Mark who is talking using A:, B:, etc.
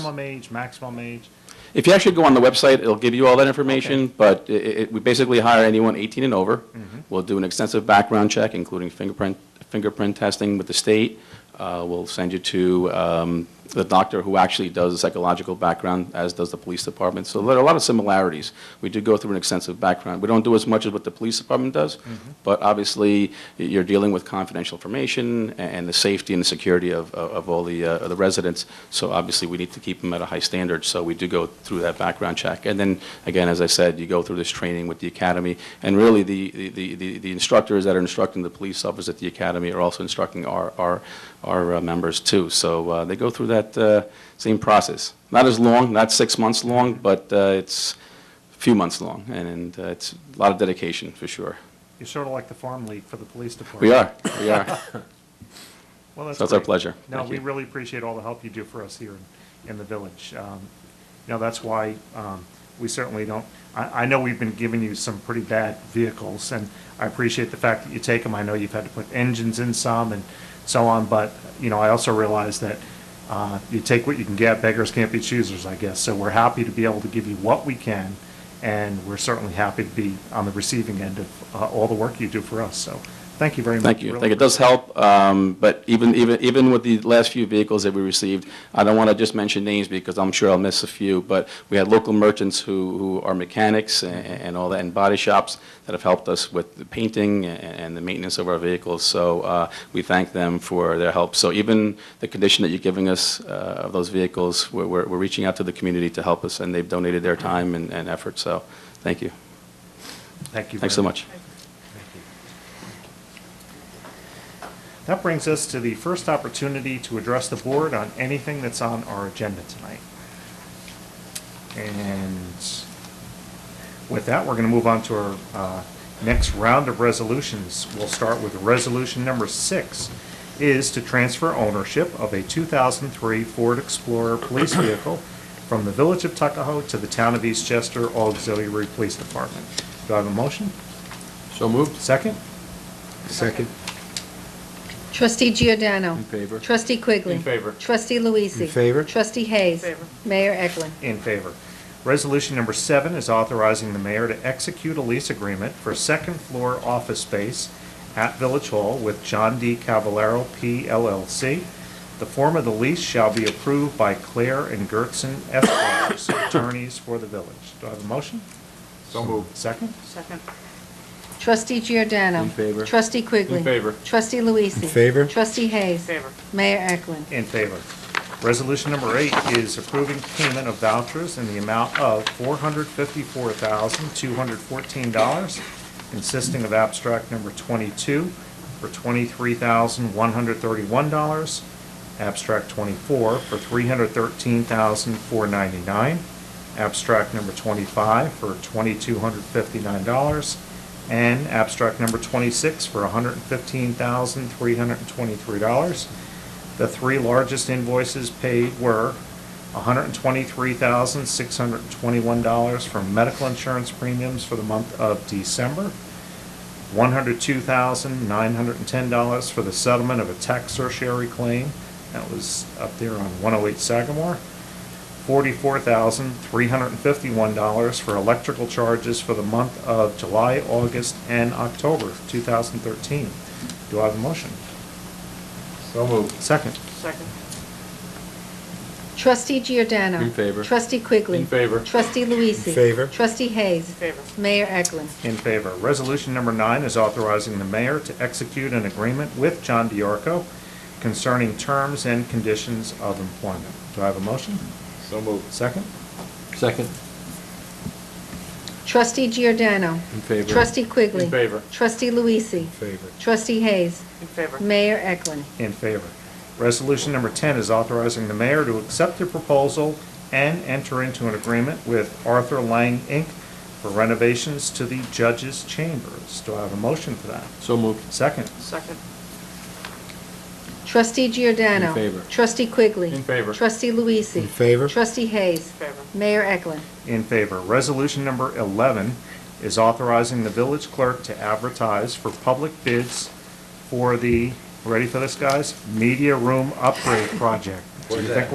A: minimum age, maximum age.
B: If you actually go on the website, it'll give you all that information, but i- i- we basically hire anyone 18 and over. We'll do an extensive background check, including fingerprint, fingerprint testing with the state. Uh, We'll send you to um, the doctor who actually does the psychological background, as does the police department. So there are a lot of similarities. We do go through an extensive background. We don't do as much as what the police department does, but obviously, you're dealing with confidential information a- and the safety and the security of, of of all the, uh, of the residents. So obviously, we need to keep them at a high standard, so we do go through that background check. And then, again, as I said, you go through this training with the academy, and really, the, the- the, the the instructors that are instructing the police officers at the academy are also instructing our, our, our uh, members too. So uh, they go through that uh, same process. Not as long, not six months long, but uh, it's a few months long, and- and uh, it's a lot of dedication, for sure.
A: You're sort of like the farm league for the police department.
B: We are, we are.
A: Well, that's
B: So it's our
A: great.
B: pleasure.
A: No,
B: Thank
A: we
B: you.
A: really appreciate all the help you do for us here in- in the village. Um, You know, that's why um, we certainly don't, I, I know we've been giving you some pretty bad vehicles, and I appreciate the fact that you take them. I know you've had to put engines in some and so on, but, you know, I also realize that uh, you take what you can get, beggars can't be choosers, I guess. So we're happy to be able to give you what we can, and we're certainly happy to be on the receiving end of uh, all the work you do for us, so thank you very much.
B: Thank you. I
A: Really
B: think it does help, um, but even, even, even with the last few vehicles that we received, I don't want to just mention names because I'm sure I'll miss a few, but we had local merchants who, who are mechanics and, and all that, and body shops that have helped us with the painting and, and the maintenance of our vehicles, so, uh, we thank them for their help. So even the condition that you're giving us, uh, of those vehicles, we're, we're, we're reaching out to the community to help us, and they've donated their time and, and effort, so, thank you.
A: Thank you.
B: Thanks so
A: very
B: much.
A: That brings us to the first opportunity to address the board on anything that's on our agenda tonight. And with that, we're going to move on to our uh, next round of resolutions. We'll start with resolution number six is to transfer ownership of a 2003 Ford Explorer police vehicle from the Village of Tuckahoe to the Town of Eastchester Auxiliary Police Department. Do I have a motion?
C: So moved.
A: Second?
C: Second.
D: Trustee Giordano.
C: In favor.
D: Trustee Quigley.
B: In favor.
D: Trustee Luizzi.
C: In favor.
D: Trustee Hayes. Mayor Eklund.
A: In favor. Resolution number seven is authorizing the mayor to execute a lease agreement for second-floor office space at Village Hall with John D. Cavallaro P. LLC. The form of the lease shall be approved by Claire and Gertson Esquires, attorneys for the village. Do I have a motion?
C: So moved.
A: Second?
E: Second.
D: Trustee Giordano.
C: In favor.
D: Trustee Quigley.
C: In favor.
D: Trustee Luizzi.
C: In favor.
D: Trustee Hayes.
E: Favor.
D: Mayor Eklund.
A: In favor. Resolution number eight is approving payment of vouchers in the amount of $454,214, consisting of abstract number 22 for $23,131, abstract 24 for $313,499, abstract number 25 for $2,259, and abstract number 26 for $115,323. The three largest invoices paid were $123,621 from medical insurance premiums for the month of December, $102,910 for the settlement of a tax certiorari claim, that was up there on 108 Sagamore, $44,351 for electrical charges for the month of July, August, and October of 2013. Do I have a motion?
C: So moved.
A: Second.
E: Second.
D: Trustee Giordano.
C: In favor.
D: Trustee Quigley.
C: In favor.
D: Trustee Luizzi.
C: In favor.
D: Trustee Hayes.
E: Favor.
D: Mayor Eklund.
A: In favor. Resolution number nine is authorizing the mayor to execute an agreement with John Diarco concerning terms and conditions of employment. Do I have a motion?
C: So moved.
A: Second?
C: Second.
D: Trustee Giordano.
C: In favor.
D: Trustee Quigley.
C: In favor.
D: Trustee Luizzi.
C: Favor.
D: Trustee Hayes.
E: In favor.
D: Mayor Eklund.
A: In favor. Resolution number 10 is authorizing the mayor to accept the proposal and enter into an agreement with Arthur Lang, Inc. for renovations to the judges' chambers. Do I have a motion for that?
C: So moved.
A: Second?
E: Second.
D: Trustee Giordano.
C: In favor.
D: Trustee Quigley.
C: In favor.
D: Trustee Luizzi.
C: In favor.
D: Trustee Hayes.
E: Favor.
D: Mayor Eklund.
A: In favor. Resolution number 11 is authorizing the village clerk to advertise for public bids for the, ready for this, guys? Media room upgrade project. Do you think